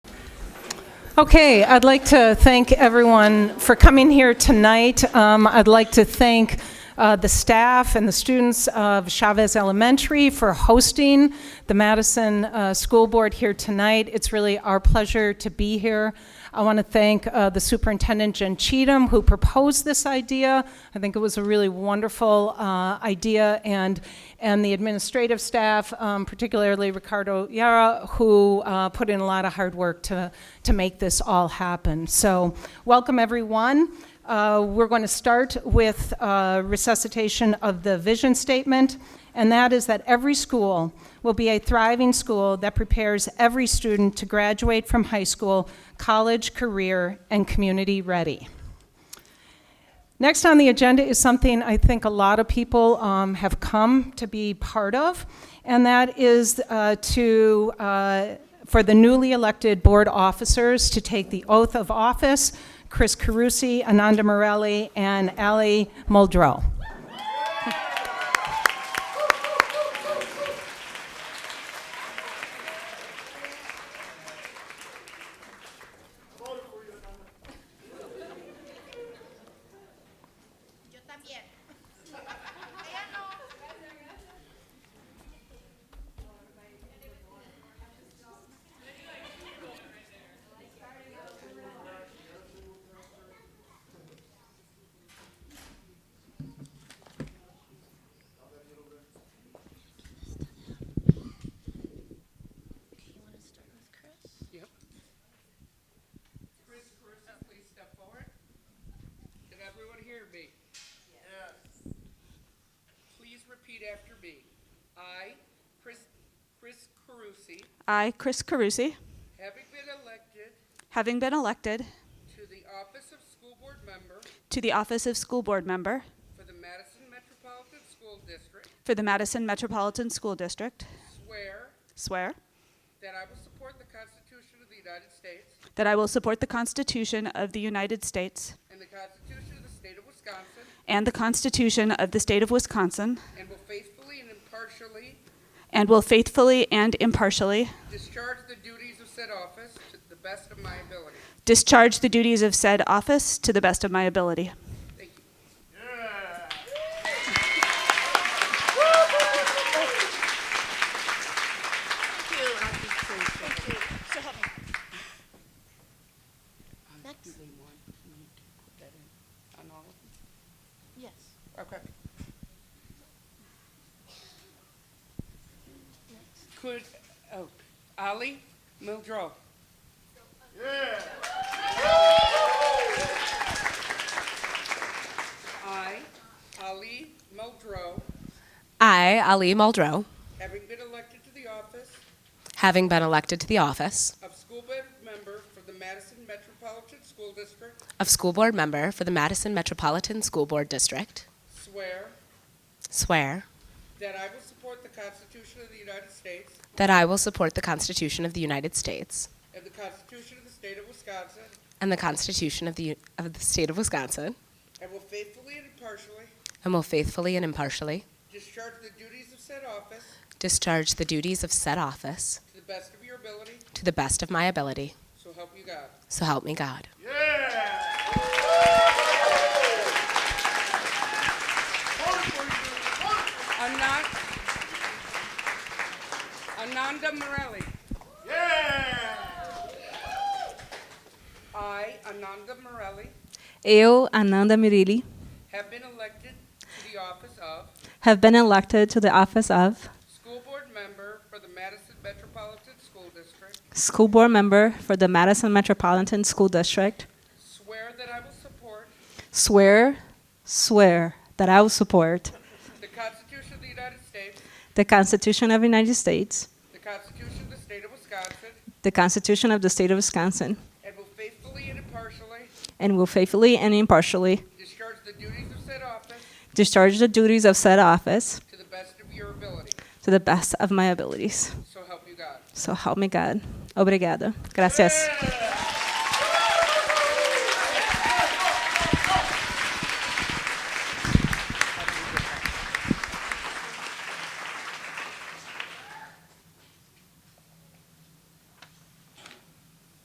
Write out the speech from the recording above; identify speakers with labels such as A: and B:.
A: Okay, I'd like to thank everyone for coming here tonight. Um, I'd like to thank uh, the staff and the students of Chavez Elementary for hosting the Madison uh, School Board here tonight. It's really our pleasure to be here. I want to thank uh, the superintendent, Jen Cheatham, who proposed this idea. I think it was a really wonderful uh, idea, and, and the administrative staff, um, particularly Ricardo Yara, who uh, put in a lot of hard work to, to make this all happen. So, welcome everyone. Uh, We're going to start with uh, resuscitation of the vision statement, and that is that every school will be a thriving school that prepares every student to graduate from high school, college, career, and community-ready. Next on the agenda is something I think a lot of people um, have come to be part of, and that is uh, to, uh, for the newly elected board officers to take the oath of office, Chris Carusi, Ananda Morelli, and Ali Muldrow.
B: Yo también. Ella no.
C: Chris Caruso, please step forward. Can everyone hear me? Yes. Please repeat after me. I, Chris, Chris Carusi,
D: I, Chris Carusi,
C: having been elected
D: having been elected
C: to the office of school board member
D: to the office of school board member
C: for the Madison Metropolitan School District,
D: for the Madison Metropolitan School District,
C: swear
D: swear
C: that I will support the Constitution of the United States
D: that I will support the Constitution of the United States
C: and the Constitution of the State of Wisconsin,
D: and the Constitution of the State of Wisconsin,
C: and will faithfully and impartially
D: and will faithfully and impartially
C: discharge the duties of said office to the best of my ability.
D: discharge the duties of said office to the best of my ability.
C: Thank you.
B: Next.
C: Do they want me to put that in on all of
B: Yes.
C: them? Okay. Could, oh, Ali Mildrow. I, Ali Mildrow,
E: I, Ali Muldrow,
C: having been elected to the office
E: having been elected to the office
C: of school board member for the Madison Metropolitan School District,
E: of school board member for the Madison Metropolitan School Board District,
C: swear
E: swear
C: that I will support the Constitution of the United States
E: that I will support the Constitution of the United States
C: and the Constitution of the State of Wisconsin,
E: and the Constitution of the, U- of the State of Wisconsin,
C: and will faithfully and impartially
E: and will faithfully and impartially
C: discharge the duties of said office
E: discharge the duties of said office
C: to the best of your ability,
E: to the best of my ability.
C: so help you God.
E: So help me God.
C: Anand, Ananda Morelli. I, Ananda Morelli,
F: Eu, Ananda Mirilli,
C: have been elected to the office of
F: have been elected to the office of
C: School Board Member for the Madison Metropolitan School District.
F: School Board Member for the Madison Metropolitan School District.
C: Swear that I will support
F: Swear, swear that I will support
C: the Constitution of the United States,
F: the Constitution of the United States,
C: the Constitution of the State of Wisconsin,
F: the Constitution of the State of Wisconsin,
C: and will faithfully and impartially
F: and will faithfully and impartially
C: discharge the duties of said office
F: discharge the duties of said office
C: to the best of your ability.
F: to the best of my abilities.
C: So help you God.
F: So help me God. Obrigada. Gracias.